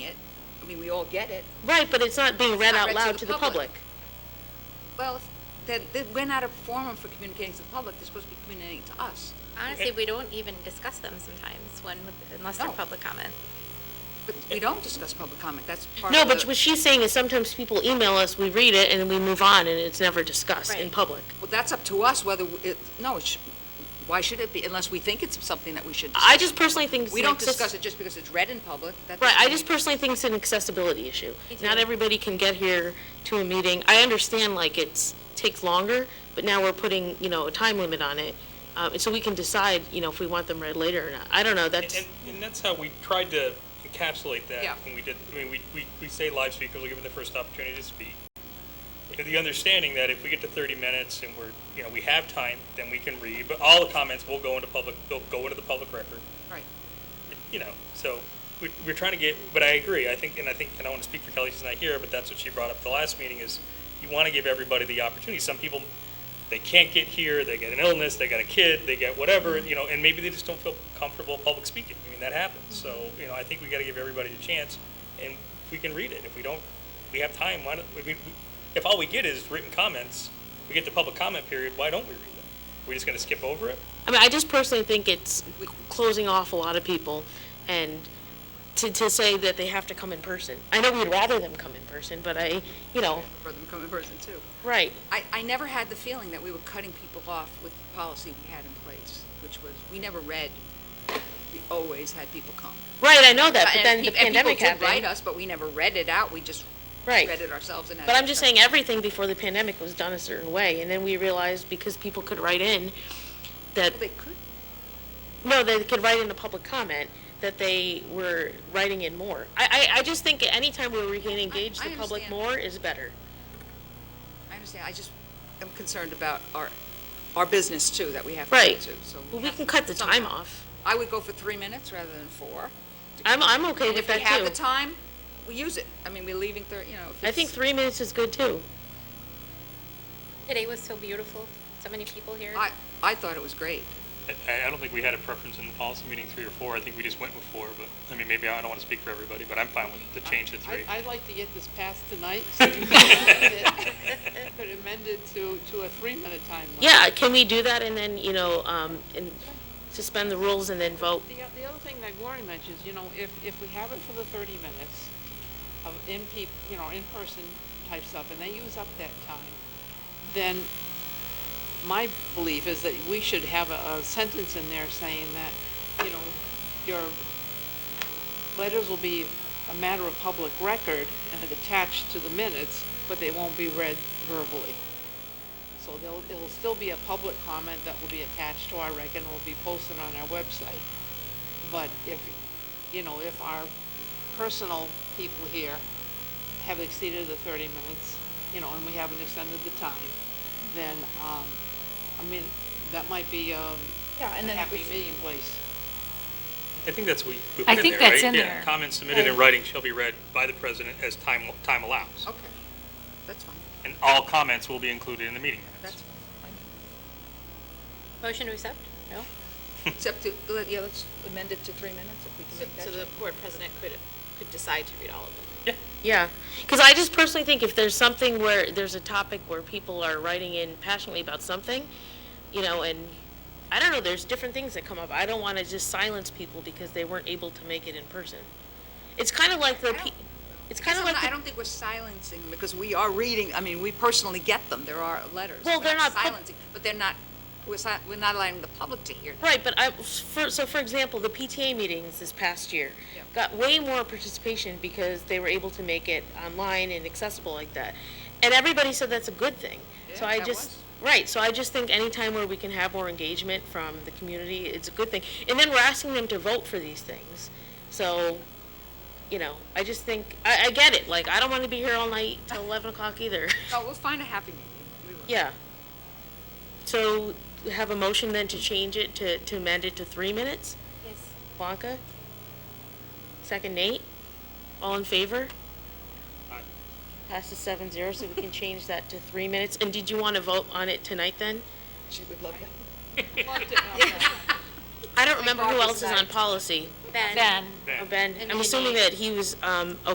I mean, we all get it. Right, but it's not being read not out read loud to the public. Well, if- then, then we're not a forum for communicating to the public, they're supposed to be communicating to us. Honestly, we don't even discuss them sometimes when, unless they're No. public comment. But we don't discuss public comment, that's part No, of the. but what she's saying is sometimes people email us, we read it, and then we move on, and it's never discussed in Right. public. Well, that's up to us whether, it, no, it sh why should it be, unless we think it's something that we should discuss. I just personally think it's We an don't access- discuss it just because it's read in public, that Right, I doesn't just mean- personally think it's an accessibility issue. Me too. Not everybody can get here to a meeting. I understand, like, it's, takes longer, but now we're putting, you know, a time limit on it. Uh, and so we can decide, you know, if we want them read later or not. I don't know, And, that's, and- and that's how we tried to encapsulate Yeah. that when we did, I mean, we, we, we say live speakers, we'll give them the first opportunity to speak. With the understanding that if we get to thirty minutes and we're, you know, we have time, then we can read, but all the comments will go into public, they'll go into the public record, Right. you know, so we, we're trying to get, but I agree, I think, and I think, and I want to speak for Kelly, she's not here, but that's what she brought up at the last meeting is you want to give everybody the opportunity. Some people, they can't get here, they get an illness, they got a kid, they get whatever, you know, and maybe they just don't feel comfortable public speaking. I mean, that happens. So, you know, I think we got to give everybody the chance, and we can read it. If we don't, we have time, why don't, I mean, if all we get is written comments, we get the public comment period, why don't we read it? We're just going to skip over it? I mean, I just personally think it's closing off a lot of people and to, to say that they have to come in person. I know we'd rather them come in person, but I, you know, For them to come in person too. right. I, I never had the feeling that we were cutting people off with the policy we had in place, which was, we never read, we always had people come. Right, I know that, but And then pe- the pandemic And people did write happened. us, but we never read it out, we just Right. read it ourselves and had. But a I'm just discussion. saying, everything before the pandemic was done a certain way, and then we realized because people could write in that, Well, They could, no, they could write in a public comment, that they were writing in more. I, I, I just think anytime where we can engage I the public understand. more is better. I understand, I just am concerned about our, our business too, that we have to Right. do too, so. Well, we have can to- cut the time somehow. off. I would go for three minutes rather than four. I'm, I'm okay And with if we that have the too. time, we use it. I mean, we're leaving thir, you know, if I think it's- three minutes is good too. Today was so beautiful, so many people here. I, I thought it was great. I, I don't think we had a preference in the policy meeting three or four. I think we just went with four, but, I mean, maybe I don't want to speak for everybody, but I'm fine with the change to three. I- I'd like to get this passed tonight, so you can amend it, but amended to, to a three-minute time limit. Yeah, can we do that and then, you know, um, and suspend the rules and then vote? The, o- the other thing that Gloria mentions, you know, if, if we have it for the thirty minutes of in peop, you know, in-person type stuff, and they use up that time, then my belief is that we should have a, a sentence in there saying that, you know, your letters will be a matter of public record and attached to the minutes, but they won't be read verbally. So there'll, it'll still be a public comment that will be attached to our record and will be posted on our website. But if, you know, if our personal people here have exceeded the thirty minutes, you know, and we haven't extended the time, then, um, I mean, that might be, um, a Yeah, and then happy if- meeting place. I think that's what we we I put in think there, that's right? in Yeah, there. Comments submitted in writing shall be read by the president as time, time allows. Okay, that's fine, And all comments will be included in the meeting that's minutes. fine. Motion to accept? No? Except to, let- yeah, let's amend it to three minutes if we can So make so that. the change. board president could, could decide to read all of them. Yeah, because I just personally think if there's something where, there's a topic where people are writing in passionately about something, you know, and, I don't know, there's different things that come up. I don't want to just silence people because they weren't able to make it in person. It's kind of like the, I don't- pe- it's I guess kind of I'm like not- I the don't think we're silencing, them because we are reading, I mean, we personally get them, there are letters. Well, We're they're not pub- Silencing, but they're not, we're si, we're not allowing the public to hear them. Right, but I, for, so for example, the PTA meetings this past year Yeah. got way more participation because they were able to make it online and accessible like that. And everybody said that's a good thing. So Yeah, I that just, right, so I just think anytime where we can have more engagement from the community, it's a good thing. And then we're asking them to vote for these things. So, you know, I just think, I, I get it, like, I don't want to be here all night till eleven o'clock either. No, we'll find a happy meeting, we will. Yeah. So have a motion then to change it, to, to amend it to three minutes? Yes. Blanca? Second Nate? All in favor? Aye. Passes seven zero, so we can change that to three minutes. And did you want to vote on it tonight then? She would love that. I don't remember who Bob was else is on policy. Ben? Ben. Oh, Ben, And I'm then assuming Nate. that he was, um,